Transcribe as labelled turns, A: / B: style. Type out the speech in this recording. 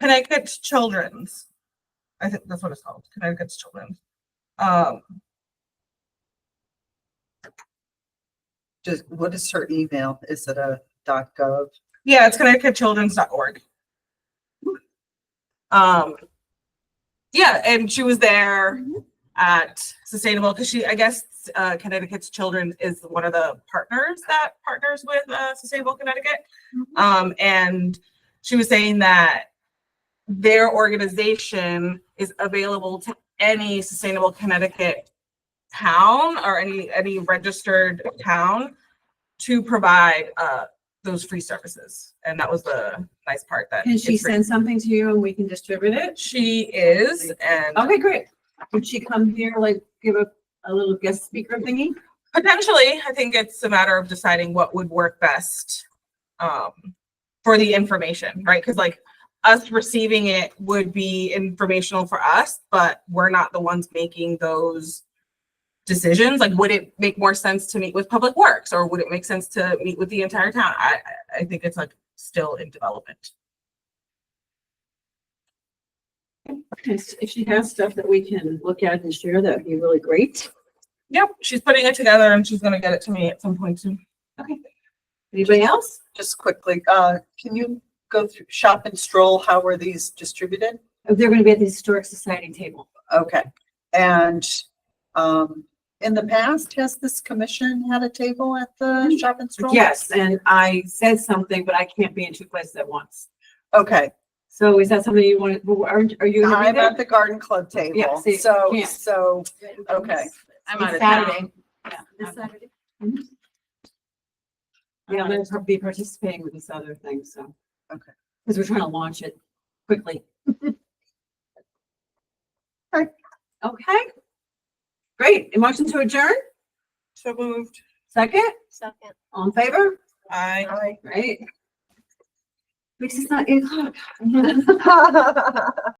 A: Connecticut Children's. I think that's what it's called, Connecticut's Children's. Um,
B: Just, what is her email? Is it a dot gov?
A: yeah, it's ConnecticutChildren's.org. Um, yeah, and she was there at Sustainable because she, I guess, uh, Connecticut's Children is one of the partners that partners with uh, Sustainable Connecticut.
C: Mhm.
A: Um, and she was saying that their organization is available to any Sustainable Connecticut town or any any registered town to provide uh, those free services. And that was the nice part that
C: Can she
A: it's free.
C: send something to you and we can distribute it?
A: She is, and
C: Okay, great. Would she come here, like, give a, a little guest speaker thingy?
A: potentially, I think it's a matter of deciding what would work best um, for the information, right? Because like us receiving it would be informational for us, but we're not the ones making those decisions. Like, would it make more sense to meet with Public Works, or would it make sense to meet with the entire town? I I I think it's like still in development.
C: Yes, If she has stuff that we can look at and share, that'd be really great.
A: Yep, she's putting it together, and she's gonna get it to me at some point soon.
C: Anybody else?
B: Just quickly, uh, can you go through shop and stroll? How are these distributed?
C: Oh, They're gonna be at the Historic Society table.
B: Okay. And, um, in the past, has this commission had a table at
C: Mm-hmm.
B: the shop and stroll?
C: Yes, and I said something, but I can't be in two places at once.
B: Okay,
C: So is that something you want, to? aren't, are you? gonna be
B: I'm
C: there?
B: at the garden club
C: Yeah,
B: table,
C: see,
B: so,
C: yeah.
B: so, okay.
A: I'm out
C: It's
A: of town.
C: Saturday.
D: This Saturday.
C: Mhm. Yeah, I'm gonna be participating with this other thing, so.
B: Okay.
C: Because we're trying to launch it quickly.
B: Okay.
C: Okay. Great. A motion to adjourn?
A: So moved.
C: Second?
D: Second.
C: All in favor?
A: I.
B: Hi.
C: Great. This is not eight o'clock.